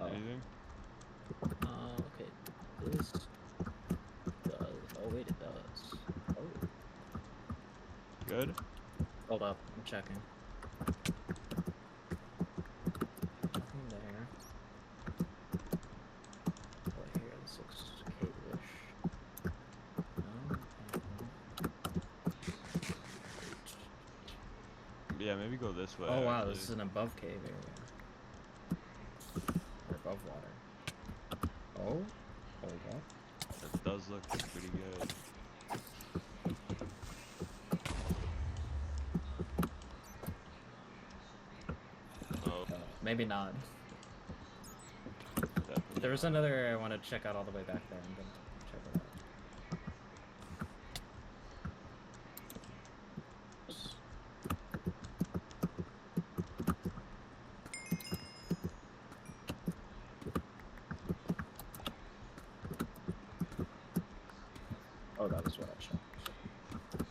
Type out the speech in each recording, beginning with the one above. Oh. Anything? Uh, okay. This does. Oh wait, it does. Oh, Good. hold up. I'm checking. Nothing there. What here? This looks cave-ish. No. okay. Yeah, maybe go this way. Oh wow, actually. this is an above cave area. Or above water. Oh. There we go. That does look pretty good. Oh, Uh, maybe not. definitely. There was another area I want to check out all the way back there. I'm gonna check it out. Oh, that is what I checked.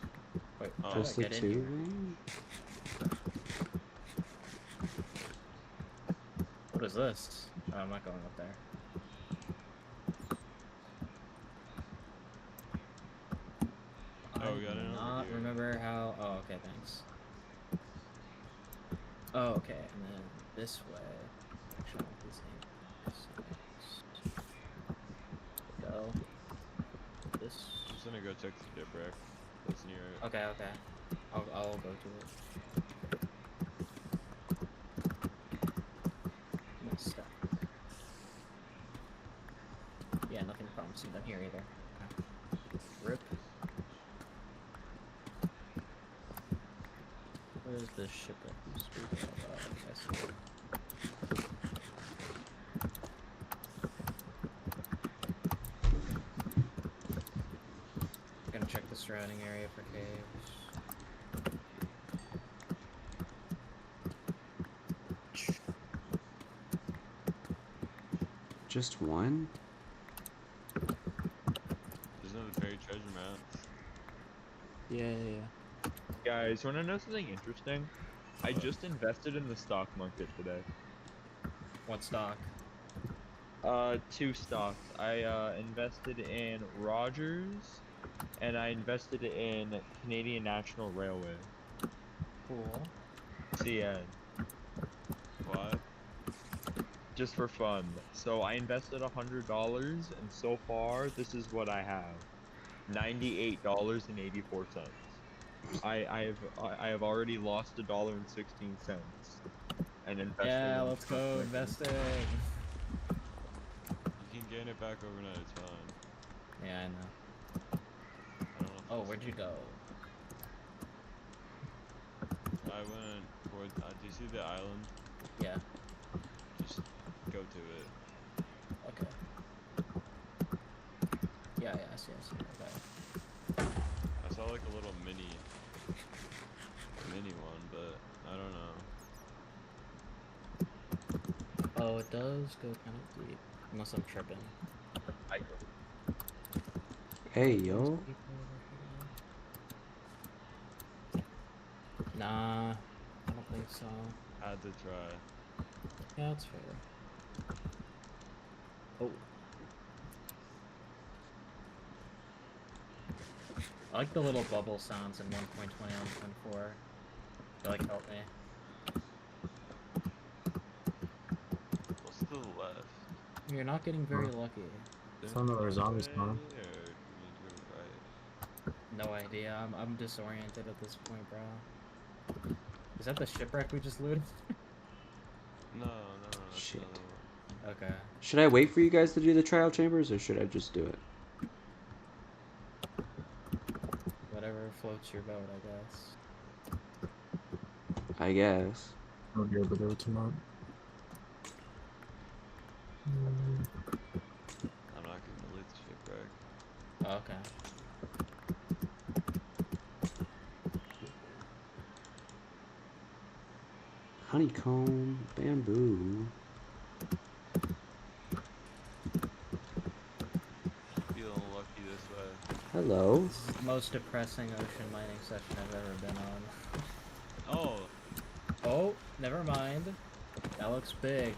Wait, Oh. how Just Just did the I get in two here? then? What is this? Oh, I'm not going up there. Oh, I we got do another not gear. remember how. Oh, okay, thanks. Oh, okay, and then this way. Actually, I want this thing. This way. Go. This. I'm just gonna go check the shipwreck. That's near it. Okay, okay. I'll, I'll go to it. No stuff. Yeah, nothing promising down here either. Rip. Where's the ship that you speak about? I see it. Gonna check the surrounding area for caves. Just one? There's another fairy treasure map. Yeah, yeah, yeah. Guys, wanna know something interesting? I What? just invested in the stock market today. What stock? Uh, two stocks. I uh, invested in Rogers, and I invested in Canadian National Railway. Cool. See, uh, What? just for fun. So I invested a hundred dollars, and so far this is what I have: ninety-eight dollars and eighty-four cents. I I've I I have already lost a dollar and sixteen cents, and invested. Yeah, in let's stock go market. investing. You can gain it back overnight, it's fine. Yeah, I know. I don't know. if Oh, it's- where'd you go? I went towards. Uh, do you see the island? Yeah. Just go to it. Okay. Yeah, yeah, I see, I see. Okay. I saw like a little mini, mini one, but I don't know. Oh, it does go kind of deep. Unless I'm tripping. Hey, yo. Nah, I don't think so. Had to try. Yeah, that's fair. Oh. I like the little bubble sounds in 1.20 and 1.4. They like help me. What's to the left? You're not getting very lucky. There's Some of our no zombies way gone. there. You need to go right. No idea. I'm, I'm disoriented at this point, bro. Is that the shipwreck we just looted? No, no, no. that's Shit. another one. okay. Should I wait for you guys to do the trial chambers or should I just do it? Whatever floats your boat, I guess. I guess. Oh dear, but they were too much. I'm not gonna loot the shipwreck. Oh, Okay. Honeycomb, bamboo. Feeling lucky this way. Hello. This is the most depressing ocean mining session I've ever been on. Oh, Oh, never mind. That looks big.